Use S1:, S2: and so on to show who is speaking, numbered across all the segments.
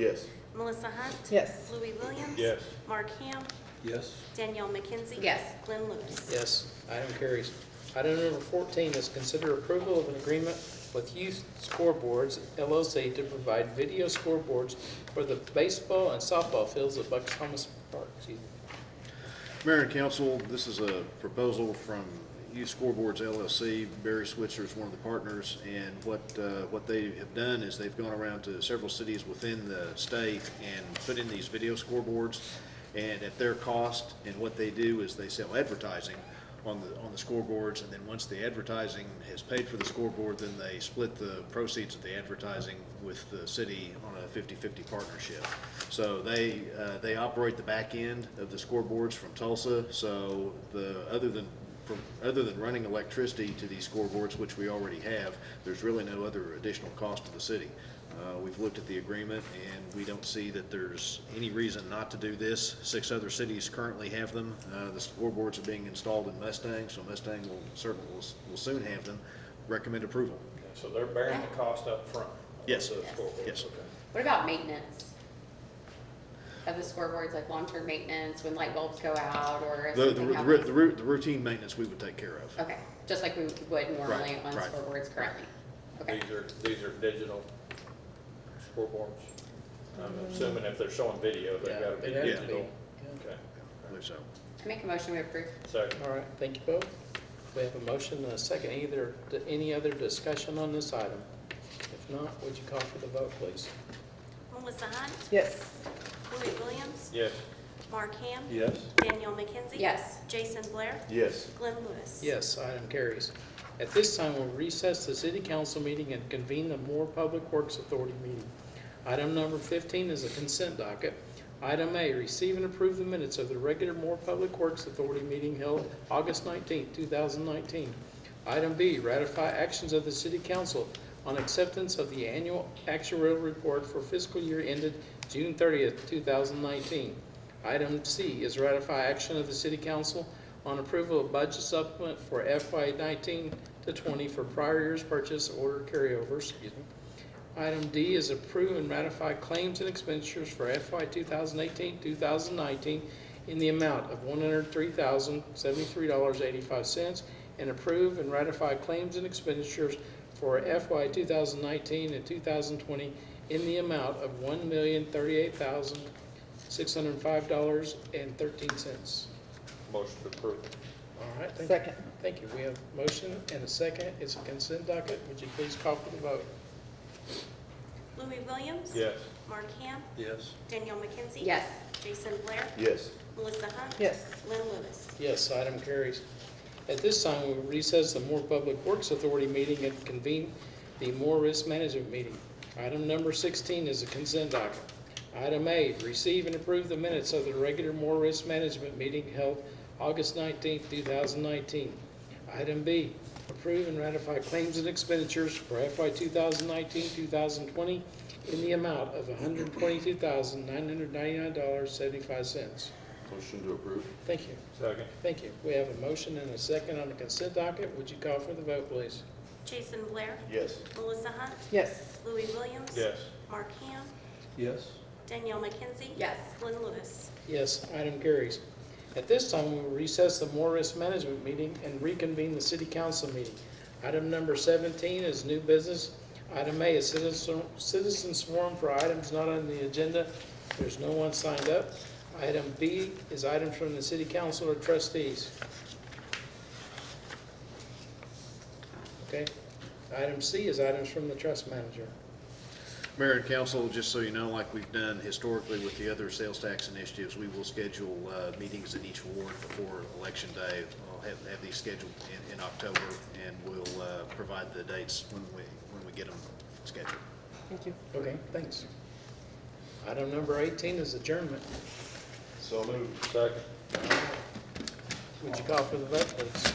S1: Yes.
S2: Melissa Hunt.
S3: Yes.
S2: Louis Williams.
S1: Yes.
S2: Mark Ham.
S4: Yes.
S2: Danielle McKenzie.
S3: Yes.
S2: Glenn Lewis.
S5: Yes, item carries. Item number 14 is consider approval of an agreement with Youth Scoreboards LLC to provide video scoreboards for the baseball and softball fields at Bucks Thomas Park. Excuse me.
S6: Mayor and council, this is a proposal from Youth Scoreboards LLC. Barry Switzer is one of the partners, and what, uh, what they have done is they've gone around to several cities within the state and put in these video scoreboards, and at their cost, and what they do is they sell advertising on the, on the scoreboards, and then once the advertising has paid for the scoreboard, then they split the proceeds of the advertising with the city on a 50-50 partnership. So they, uh, they operate the back end of the scoreboards from Tulsa, so the, other than, from- other than running electricity to these scoreboards, which we already have, there's really no other additional cost to the city. Uh, We've looked at the agreement, and we don't see that there's any reason not to do this. Six other cities currently have them. Uh, The scoreboards are being installed in Mustang, so Mustang will certainly, will s- will soon have them. Recommend approval.
S1: So they're bearing the cost up front.
S6: Yes.
S1: Of the scoreboard.
S6: Yes.
S1: Okay.
S7: What about maintenance of the scoreboards, like long-term maintenance, when light bulbs go out or if
S6: The, the
S7: something
S6: ru- the ru-
S7: happens?
S6: the ru- the routine maintenance we would take care of.
S7: Okay, just like we would normally
S6: Right,
S7: on
S6: right,
S7: scoreboards currently? Okay,
S1: These are, these are digital scoreboards. I'm assuming if they're showing video, they
S5: Mm-hmm. Yeah,
S1: gotta be
S5: they'd have to be.
S1: digital.
S5: Yeah.
S1: Okay,
S6: I believe so.
S7: I make a motion we approve.
S1: second.
S5: All right, thank you both. We have a motion and a second. Either, any other discussion on this item? If not, would you call for the vote, please?
S2: Melissa Hunt.
S3: Yes.
S2: Louis Williams.
S1: Yes.
S2: Mark Ham.
S4: Yes.
S2: Danielle McKenzie.
S7: Yes.
S2: Jason Blair.
S1: Yes.
S2: Glenn Lewis.
S5: Yes, item carries. At this time, we'll recess the city council meeting and convene the Moore Public Works Authority meeting. Item number fifteen is a consent docket. Item A, receive and approve the minutes of the regular Moore Public Works Authority meeting held August nineteenth, two thousand nineteen. Item B, ratify actions of the city council on acceptance of the annual actuarial report for fiscal year ended June thirtieth, two thousand nineteen. Item C is ratify action of the city council on approval of budget supplement for FY nineteen to twenty for prior year's purchase order carryovers. excuse me. Item D is approve and ratify claims and expenditures for FY 2018-2019 in the amount of one hundred three thousand seventy-three dollars eighty-five cents and approve and ratify claims and expenditures for FY two thousand nineteen and two thousand twenty in the amount of one million thirty-eight thousand six hundred and five dollars and thirteen cents.
S1: Motion to approve.
S5: All right, thank you.
S3: Second.
S5: Thank you. We have a motion and a second. It's a consent docket. Would you please call for the vote?
S2: Louis Williams.
S1: Yes.
S2: Mark Ham.
S4: Yes.
S2: Danielle McKenzie.
S7: Yes,
S2: Jason Blair.
S1: Yes.
S2: Melissa Hunt.
S3: Yes.
S2: Glenn Lewis.
S5: Yes, item carries. At this time, we will recess the Moore Public Works Authority meeting and convene the Moore Risk Management meeting. Item number 16 is a consent docket. Item A, receive and approve the minutes of the regular Moore Risk Management meeting held August 19, 2019. Item B, approve and ratify claims and expenditures for FY 2019-2020 in the amount of $122,999.75.
S1: Motion to approve.
S5: Thank you.
S1: Second.
S5: Thank you. We have a motion and a second on the consent docket. Would you call for the vote, please?
S2: Jason Blair.
S1: Yes.
S2: Melissa Hunt.
S3: Yes.
S2: Louis Williams.
S1: Yes.
S2: Mark Ham.
S4: Yes.
S2: Danielle McKenzie.
S7: yes,
S2: Glenn Lewis.
S5: Yes, item carries. At this time, we will recess the Morris Management Meeting and reconvene the City Council meeting. Item number 17 is new business. Item A is citizen citizens forum for items not on the agenda. There's no one signed up. Item B is items from the City Council or trustees. Okay. Item C is items from the trust manager.
S6: Mayor and council, just so you know, like we've done historically with the other sales tax initiatives, we will schedule uh, meetings in each ward before election day. I'll have, have these scheduled in, in October, and we'll uh, provide the dates when we, when we get them scheduled.
S3: Thank you.
S5: Okay, thanks. Item number 18 is adjournment.
S1: So moved. Second.
S5: Would you call for the vote, please?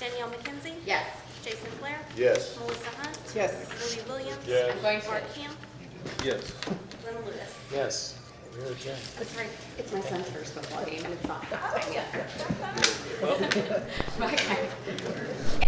S2: Danielle McKenzie.
S7: yes.
S2: Jason Blair.
S1: Yes.
S2: Melissa Hunt.
S3: Yes.
S2: Louis Williams.
S1: Yes.
S7: I'm going to,
S2: Mark Ham.
S4: Yes.
S2: Glenn Lewis.
S5: Yes. We're adjourned.
S7: it's right, it's my son's first football game and it's not that time yet. Okay.